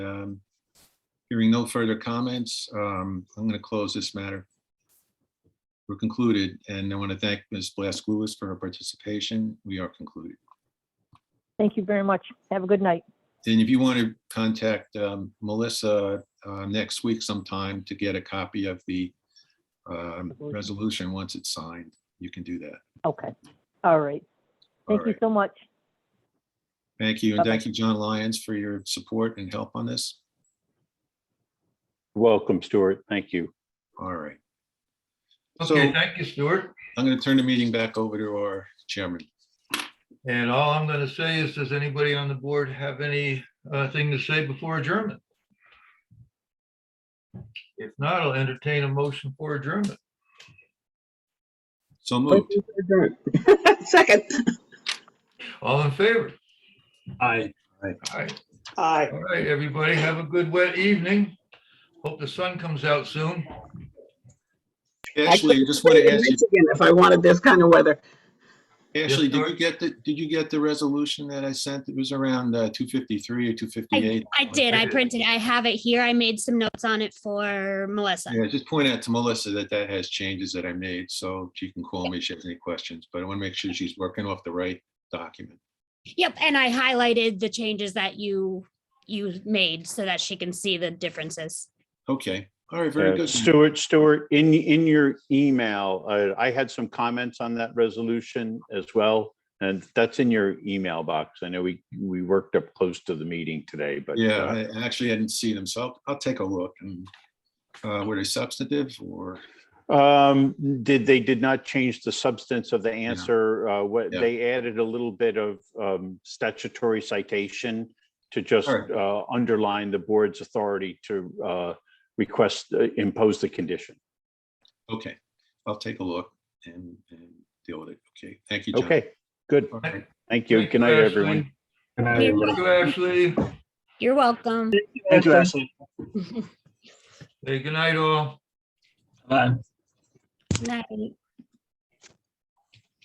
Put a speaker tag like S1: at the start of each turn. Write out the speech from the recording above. S1: Um, Hearing no further comments, um, I'm going to close this matter. We're concluded, and I want to thank Ms. Blask Lewis for her participation. We are concluded.
S2: Thank you very much. Have a good night.
S1: And if you want to contact um, Melissa uh, next week sometime to get a copy of the um, resolution, once it's signed, you can do that.
S2: Okay. All right.
S1: All
S2: Thank you
S1: right.
S2: so much.
S1: Thank you, and
S2: Bye-bye.
S1: thank you, John Lyons, for your support and help on this.
S3: Welcome, Stuart. Thank you.
S1: All right. So
S4: Okay,
S1: I'm
S4: thank you, Stuart.
S1: going to turn the meeting back over to our chairman.
S4: And all I'm going to say is, does anybody on the board have any uh, thing to say before adjournment? If not, I'll entertain a motion for adjournment.
S1: So moved.
S5: Second.
S4: All in favor?
S3: Aye.
S4: All right,
S5: Aye.
S4: all right, everybody, have a good wet evening. Hope the sun comes out soon.
S1: Ashley, I just want to ask you,
S5: If I wanted this kind of weather.
S1: Ashley, did you
S4: Sorry.
S1: get the, did you get the resolution that I sent? It was around uh, 253 or 258.
S6: I did. I printed. I have it here. I made some notes on it for Melissa.
S1: Yeah, just point out to Melissa that that has changes that I made, so she can call me if she has any questions, but I want to make sure she's working off the right document.
S6: Yep, and I highlighted the changes that you you made so that she can see the differences.
S1: Okay, all right, very
S3: Uh,
S1: good.
S3: Stuart, Stuart, in, in your email, uh, I had some comments on that resolution as well. And that's in your email box. I know we, we worked up close to the meeting today, but.
S1: Yeah,
S3: uh,
S1: I I actually hadn't seen them, so I'll- I'll take a look. and, uh, Were they substantive or?
S3: Um, did, they did not change the substance of the answer. Uh, what,
S1: Yeah.
S3: they added a little bit of, um, statutory citation to just,
S1: All right.
S3: uh, underline the board's authority to, uh, request, uh, impose the condition.
S1: Okay, I'll take a look and, and deal with it. Okay, thank you, John.
S3: Okay, good.
S1: All right.
S3: Thank you. Good night, everyone.
S6: uh,
S4: Thank you, Ashley.
S6: You're welcome.
S7: Thank you, Ashley.
S4: Hey, good night all.
S7: Bye.
S6: Night.